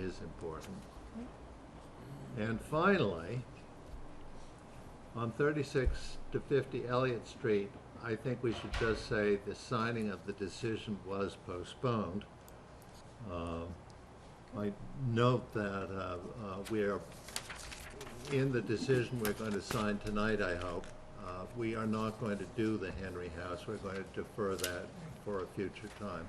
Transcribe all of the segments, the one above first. is important. And finally, on thirty-six to fifty Elliott Street, I think we should just say the signing of the decision was postponed. Um, I note that uh, uh, we are, in the decision we're going to sign tonight, I hope, uh, we are not going to do the Henry House. We're going to defer that for a future time.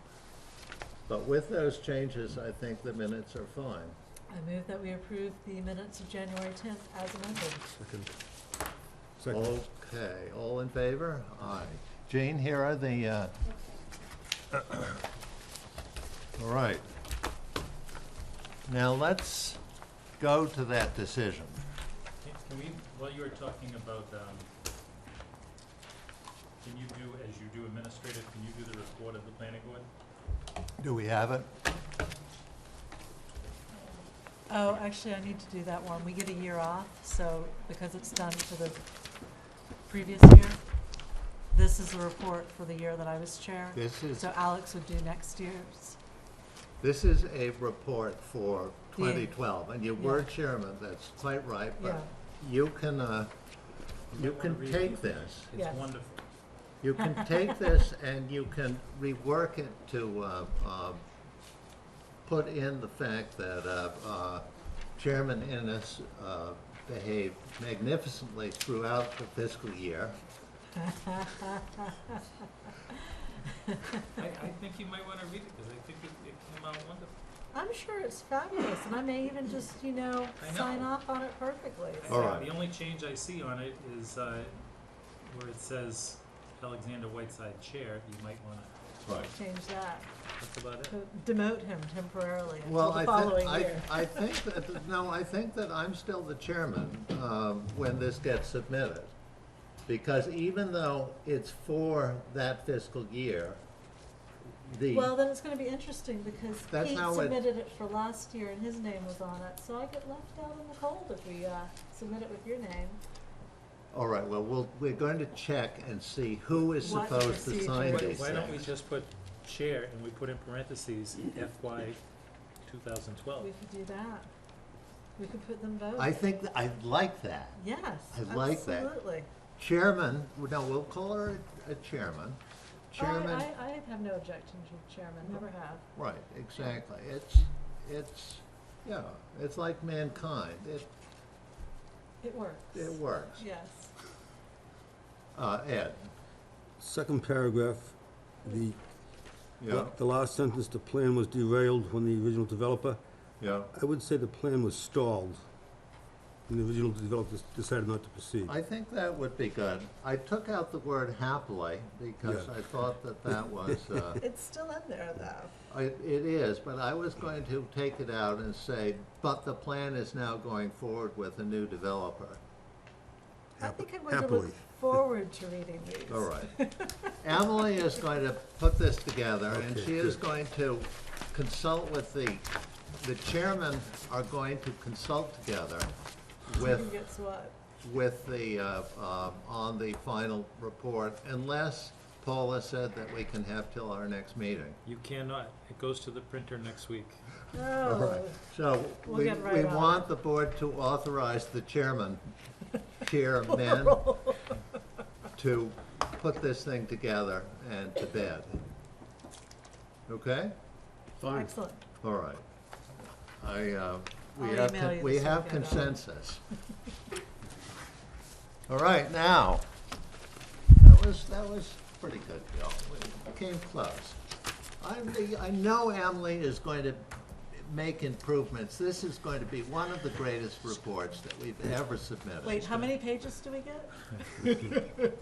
But with those changes, I think the minutes are fine. I move that we approve the minutes of January tenth as amended. Second. Second. Okay, all in favor? Aye. Jane, here are the, uh, all right. Now, let's go to that decision. Can can we, while you were talking about, um, can you do, as you do administrative, can you do the report of the planning board? Do we have it? Oh, actually, I need to do that one. We get a year off, so because it's done for the previous year, this is the report for the year that I was chair. This is, So Alex would do next year's. this is a report for The- 2012, and you were chairman, that's quite right, Yeah, but you can, uh, You you might wanna can read it. take this, Yeah. It's wonderful. you can take this and you can rework it to uh, uh, put in the fact that uh, uh, Chairman Innes uh, behaved magnificently throughout the fiscal year. I, I think you might wanna read it, cause I think it, it came out wonderful. I'm sure it's fabulous, and I may even just, you know, I know. sign off on it perfectly. I All think right. The only change I see on it is, uh, where it says Alexander Whiteside Chair, you might wanna, Right. Change that, that's about it. to demote him temporarily until Well, the I following think, year. I, I think that, no, I think that I'm still the chairman um, when this gets submitted. Because even though it's for that fiscal year, the. Well, then it's gonna be interesting because That's he how it- submitted it for last year and his name was on it, so I get left out in the cold if we, uh, submit it with your name. All right, well, we'll, we're going to check and see who is What supposed to sign Why, procedure? these why don't we things. just put chair and we put in parentheses FY two thousand twelve? We could do that. We could put them both. I think, th- I like that. Yes, I like that. absolutely. Chairman, no, we'll call her a chairman. Chairman, I, I, I have no objection to chairman, never have. right, exactly. It's, it's, yeah, it's like mankind. It, It works. it works. Yes. Uh, Ed? Second paragraph, the, Yeah, the last sentence, the plan was derailed when the original developer, yeah. I would say the plan was stalled. And the original developer decided not to proceed. I think that would be good. I took out the word happily because Yeah. I thought that that was, uh, It's still in there though. I- It is, but I was going to take it out and say, but the plan is now going forward with a new developer. I Hap- think I'm going to happily. look forward to reading these. All right. Emily is going to put this together, and Okay, she is good. going to consult with the, the chairmen are going to consult together Who with, gets what? with the, uh, um, on the final report, unless Paula said that we can have till our next meeting. You cannot, it goes to the printer next week. Oh, So We'll we, get right we on it. want the board to authorize the chairman, chairman, to put this thing together and to bed. Okay? excellent. All right. I, uh, we I'll have, email con- you we this have weekend, I'll- consensus. All right, now, that was, that was pretty good, Bill. We came close. I'm, the- I know Emily is going to make improvements. This is going to be one of the greatest reports that we've ever submitted. Wait, how many pages do we get?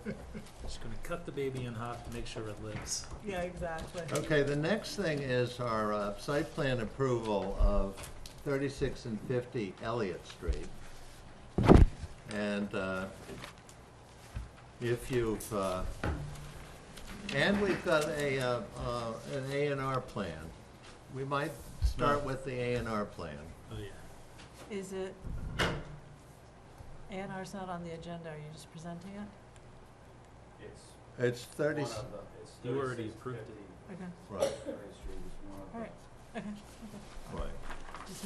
Just gonna cut the baby in half to make sure it lives. Yeah, exactly. Okay, the next thing is our uh, site plan approval of 36 and 50 Elliott Street. And uh, if you've, uh, and we've got a, uh, uh, an A and R plan. We might start with the A and R plan. Oh, yeah. Is it, A and R's not on the agenda, are you just presenting it? It's It's one 30, of the, it's You already thirty-six approved it. fifty Okay, right, Perry Street is one of all right, the, okay. right.